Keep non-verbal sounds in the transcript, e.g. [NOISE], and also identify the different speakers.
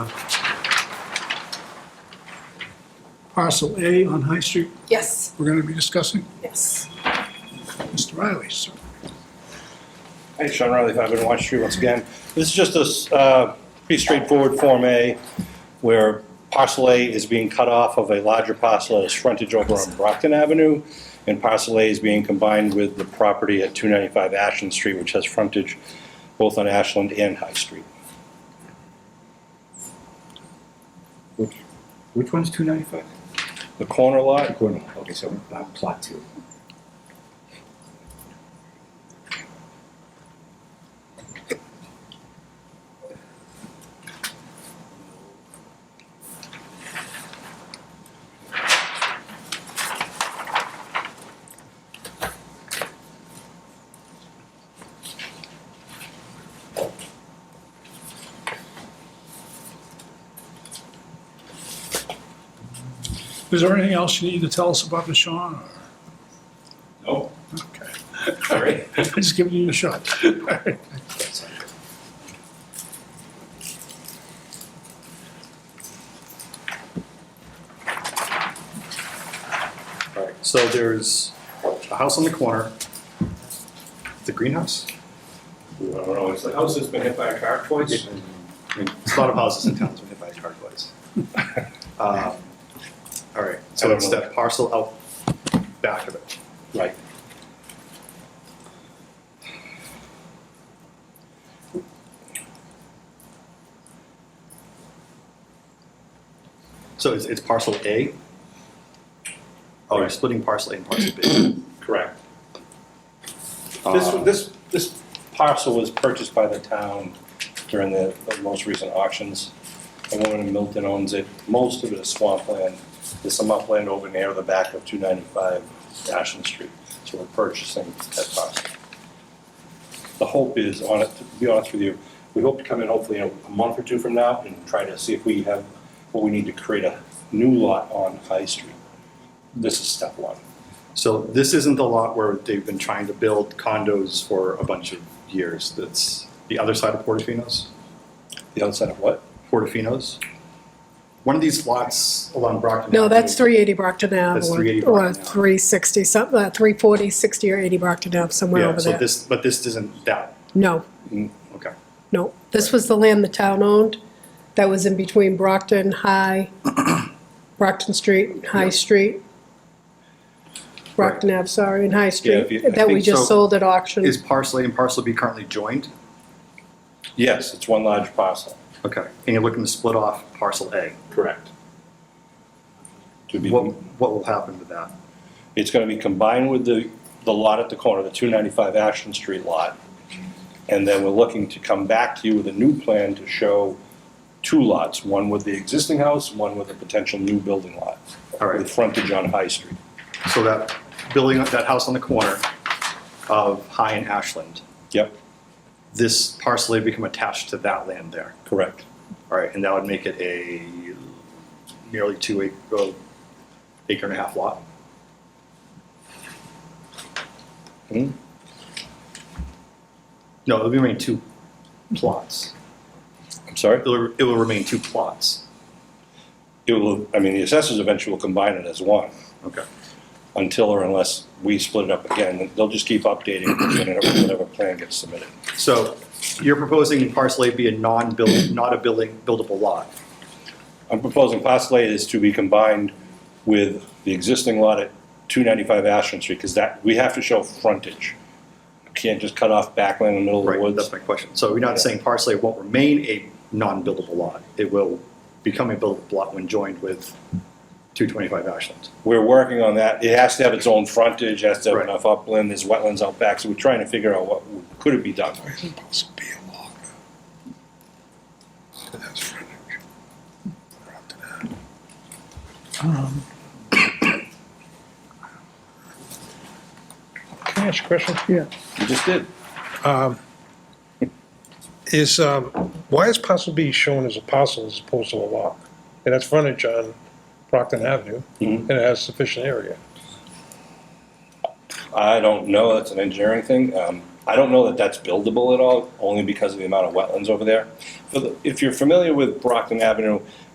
Speaker 1: parcel A on High Street
Speaker 2: Yes,
Speaker 1: we're gonna be discussing?
Speaker 2: yes.
Speaker 1: Mr. Riley, sir.
Speaker 3: Hey, Sean Riley, 501 Watch Street once again. This is just a s- uh, pretty straightforward Form A where parcel A is being cut off of a larger parcel that has frontage over on Brockton Avenue, and parcel A is being combined with the property at 295 Ashland Street, which has frontage both on Ashland and High Street.
Speaker 4: Which, which one's two ninety-five?
Speaker 3: The corner lot,
Speaker 4: Corner, okay, so uh, plot two.
Speaker 1: Is there anything else you need to tell us about the Sean? or-
Speaker 4: Oh,
Speaker 1: Okay,
Speaker 4: all right.
Speaker 1: I'm just giving you a shot.
Speaker 4: All right, so there's a house on the corner, the greenhouse.
Speaker 3: I don't know, it's the house that's been hit by a car twice.
Speaker 4: I mean, there's a lot of houses in town that's been hit by a car twice. Um, All right, so it's that parcel out back of it.
Speaker 3: Right.
Speaker 4: So it's, it's parcel A? Oh, you're splitting parcel A and parcel B.
Speaker 3: Correct. This,
Speaker 4: Um,
Speaker 3: this, this parcel was purchased by the town during the the most recent auctions. A woman in Milton owns it, most of it is swampland, there's some upland over near the back of two ninety-five Ashland Street, so we're purchasing that parcel. The hope is, on it, to be honest with you, we hope to come in hopefully in a month or two from now and try to see if we have what we need to create a new lot on High Street. This is step one.
Speaker 4: So this isn't the lot where they've been trying to build condos for a bunch of years. That's the other side of Portofino's,
Speaker 3: The outside of what?
Speaker 4: Portofino's. One of these lots along Brockton.
Speaker 2: No,
Speaker 4: Avenue.
Speaker 2: that's 380 Brockton Ave.
Speaker 4: That's
Speaker 2: or-
Speaker 4: 380
Speaker 2: Or
Speaker 4: Brockton Ave.
Speaker 2: 360, some- uh, 340, 60, or 80 Brockton Ave, somewhere
Speaker 4: Yeah,
Speaker 2: over
Speaker 4: so
Speaker 2: there.
Speaker 4: this, but this isn't that, Mm,
Speaker 2: No,
Speaker 4: okay.
Speaker 2: no. This was the land the town owned that was in between Brockton
Speaker 4: [CLEARS THROAT]
Speaker 2: High, Brockton Street, High Street, Brockton Ave, sorry, and High
Speaker 3: if you- I
Speaker 2: Street, that we
Speaker 3: think
Speaker 2: just
Speaker 4: so.
Speaker 2: sold at auction.
Speaker 4: Is parcel A and parcel B currently joined?
Speaker 3: Yes, it's one large parcel.
Speaker 4: Okay, and you're looking to split off parcel A.
Speaker 3: Correct. To be,
Speaker 4: What, what will happen to that?
Speaker 3: it's gonna be combined with the, the lot at the corner, the two ninety-five Ashland Street lot. And then we're looking to come back to you with a new plan to show two lots, one with the existing house, one with a potential new building lot.
Speaker 4: All right.
Speaker 3: With frontage on High Street.
Speaker 4: So that building, that house on the corner of High and Ashland,
Speaker 3: Yep,
Speaker 4: this parcel A become attached to that land there.
Speaker 3: correct.
Speaker 4: All right, and that would make it a nearly two acre, oh, acre and a half lot.
Speaker 3: Hmm?
Speaker 4: No, it'll remain two plots.
Speaker 3: I'm sorry?
Speaker 4: It'll, it will remain two plots.
Speaker 3: It will, I mean, the assessors eventually will combine it as one.
Speaker 4: Okay.
Speaker 3: Until or unless we split it up again, they'll just keep updating whatever whatever plan gets submitted.
Speaker 4: So you're proposing parcel A be a non-build, not a building, buildable lot.
Speaker 3: I'm proposing parcel A is to be combined with the existing lot at 295 Ashland Street, because that, we have to show frontage. You Can't just cut off backland in the middle of the
Speaker 4: Right, that's
Speaker 3: woods.
Speaker 4: my question. So you're not saying parcel A won't remain a non-buildable lot? It will become a buildable lot when joined with 225 Ashland?
Speaker 3: We're working on that. It has to have its own frontage, has to have
Speaker 4: Right.
Speaker 3: enough upland, there's wetlands out back, so we're trying to figure out what, could it be done?
Speaker 1: It's supposed to be a log. That has frontage. We're up to that. Um, Can I ask a question? Yeah.
Speaker 3: You just did.
Speaker 5: is, um, why is parcel B shown as a parcel as opposed to a lot? It has frontage on Brockton Avenue, and it has sufficient area.
Speaker 3: I don't know, that's an engineering thing. Um, I don't know that that's buildable at all, only because of the amount of wetlands over there. For the- If you're familiar with Brockton Avenue,